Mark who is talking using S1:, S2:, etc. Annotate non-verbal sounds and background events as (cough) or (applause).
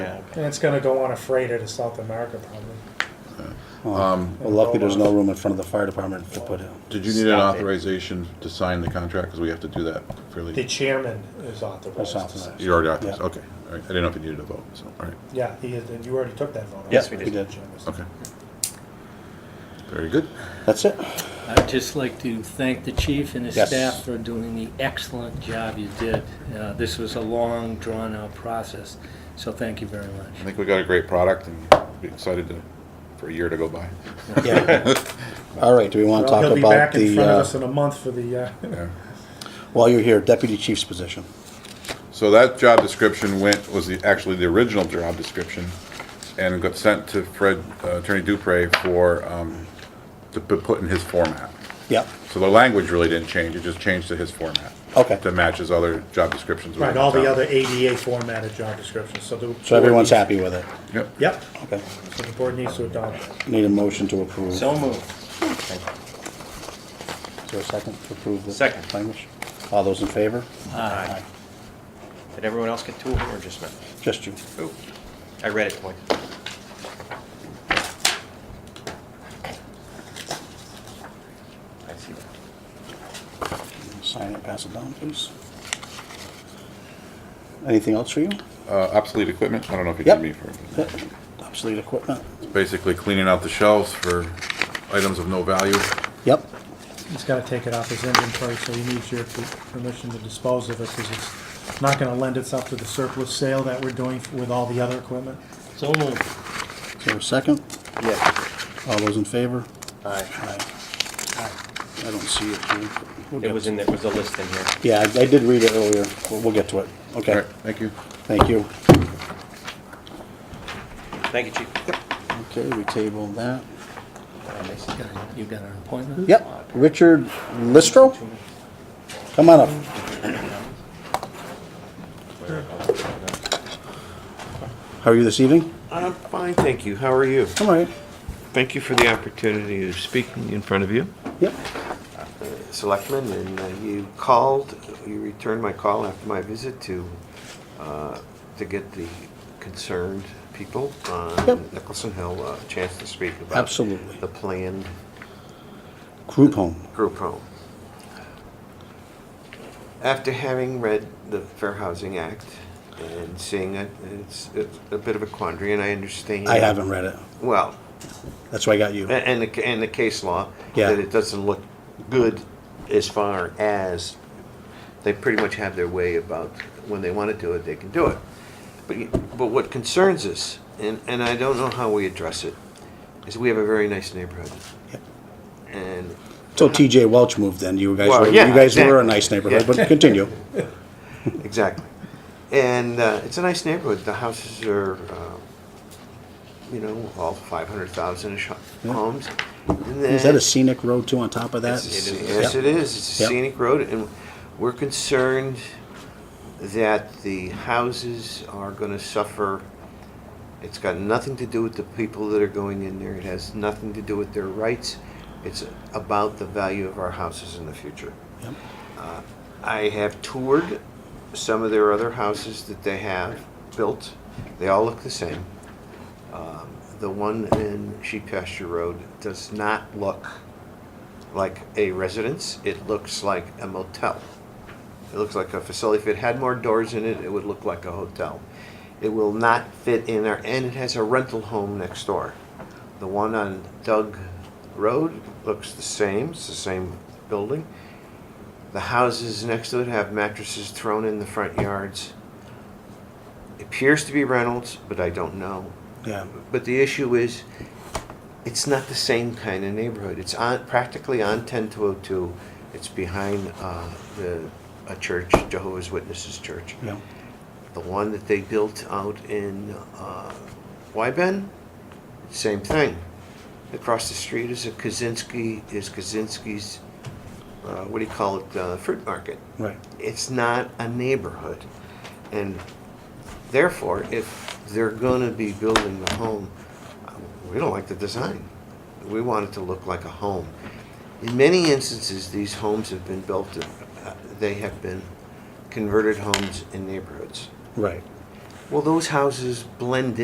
S1: And it's gonna go on a freighter to South America probably.
S2: Well, luckily, there's no room in front of the fire department to put it.
S3: Um, Did you need an authorization to sign the contract, because we have to do that
S1: The
S3: fairly,
S1: chairman is
S2: That's
S1: authorized. to sign.
S2: authorized.
S3: you already authorized,
S2: Yeah.
S3: okay, all right, I didn't know if you needed a vote, so, all right,
S1: Yeah, he is, and you already took that vote.
S2: Yes, we did.
S1: The chairman's-
S3: okay. Very good,
S2: That's it.
S4: I'd just like to thank the chief and his
S2: Yes.
S4: staff for doing the excellent job you did. Uh, This was a long, drawn-out process, so thank you very
S3: I
S4: much.
S3: think we got a great product, and be excited to, for a year to go by.
S2: Yeah. All right, do we want to
S1: Well,
S2: talk
S1: he'll be
S2: about
S1: back in
S2: the,
S1: front of us
S2: uh,
S1: in a month for the, uh,
S3: Yeah.
S2: while you're here, deputy chief's position?
S3: So that job description went, was the, actually the original job description, and got sent to Fred, uh, Attorney Dupre for, um, to p- put in his format.
S2: Yeah,
S3: So the language really didn't change, it just changed to his format.
S2: Okay.
S3: That matches other job descriptions. we
S1: right,
S3: have
S1: all
S3: in
S1: the
S3: town.
S1: other ADA formatted job descriptions, so the.
S2: so everyone's happy with it.
S3: Yep.
S1: Yep,
S2: Okay,
S1: so the board needs to adopt. it.
S2: need a motion to approve. Is
S5: So moved.
S2: there a second to approve the
S5: Second.
S2: language? All those in favor?
S5: Aye. Did everyone else get two of them or just me?
S2: Just you.
S5: Oh, I read it twice. I see that.
S2: Sign it, pass it down, please. Anything else for you?
S3: Uh, obsolete equipment, I don't know if you
S2: Yep.
S3: need me for,
S2: Yep. Obsolete equipment?
S3: it's basically cleaning out the shelves for items of no value.
S2: Yep,
S1: He's gotta take it off his inventory, so he needs your permission to dispose of it, cause it's not gonna lend itself to the surplus sale that we're doing with all the other equipment.
S4: So moved.
S2: is there a second?
S5: Yes.
S2: All those in favor?
S5: Aye.
S2: Aye. I don't see it here. We'll
S5: It
S2: get
S5: was
S2: to-
S5: in, there. it was a list in here.
S2: Yeah, I I did read it earlier. We'll- We'll get to it.
S3: All
S2: Okay,
S3: right, thank you.
S2: thank you.
S5: Thank you, chief.
S2: Okay, we table that.
S4: You got an appointment?
S2: Yep, Richard Listro? Come on up. How are you this evening?
S6: I'm fine, thank you. How are you?
S2: I'm all right.
S6: Thank you for the opportunity of speaking in front of you.
S2: Yep,
S6: Selectman, and uh, you called, you returned my call after my visit to, uh, to get the concerned people
S2: Yep.
S6: on Nicholson Hill a chance to speak about
S2: Absolutely.
S6: the planned
S2: group home.
S6: group home. After having read the Fair Housing Act and seeing it, it's, it's a bit of a quandary, and I understand.
S2: I haven't read it.
S6: Well,
S2: That's why I got you.
S6: A- And the, and the case law,
S2: Yeah.
S6: that it doesn't look good as far as, they pretty much have their way about when they want to do it, they can do it. But, you- but what concerns us, and, and I don't know how we address it, is we have a very nice neighborhood.
S2: Yep.
S6: And
S2: So TJ Welch moved in. You guys
S6: Well,
S2: were, you
S6: yeah,
S2: guys were a
S6: exactly.
S2: nice neighborhood,
S6: Yeah.
S2: but
S6: (laughs)
S2: continue.
S6: Exactly. And uh, it's a nice neighborhood. The houses are, uh, you know, all 500,000-ish
S2: Yeah.
S6: homes.
S2: Is that a scenic road too on top of that?
S6: It's- Yes, it is. It's a
S2: Yep.
S6: scenic road, and we're concerned that the houses are gonna suffer. It's got nothing to do with the people that are going in there. It has nothing to do with their rights. It's about the value of our houses in the future.
S2: Yep.
S6: Uh, I have toured some of their other houses that they have built. They all look the same. Um, The one in Sheep Pasture Road does not look like a residence. It looks like a motel. It looks like a facility. If it had more doors in it, it would look like a hotel. It will not fit in there, and it has a rental home next door. The one on Doug Road looks the same. It's the same building. The houses next to it have mattresses thrown in the front yards. It appears to be Reynolds, but I don't know.
S2: Yeah,
S6: But the issue is, it's not the same kind of neighborhood. It's on, practically on ten two oh two. It's behind, uh, the, a church, Jehovah's Witnesses Church.
S2: yeah.
S6: The one that they built out in, uh, Wyben, same thing. Across the street is a Kaczynski, is Kaczynski's, uh, what do you call it, uh, fruit market
S2: Right.
S6: it's not a neighborhood. And therefore, if they're gonna be building the home, we don't like the design. We want it to look like a home. In many instances, these homes have been built, uh, they have been converted homes in neighborhoods.
S2: Right.
S6: Well, those houses blend in.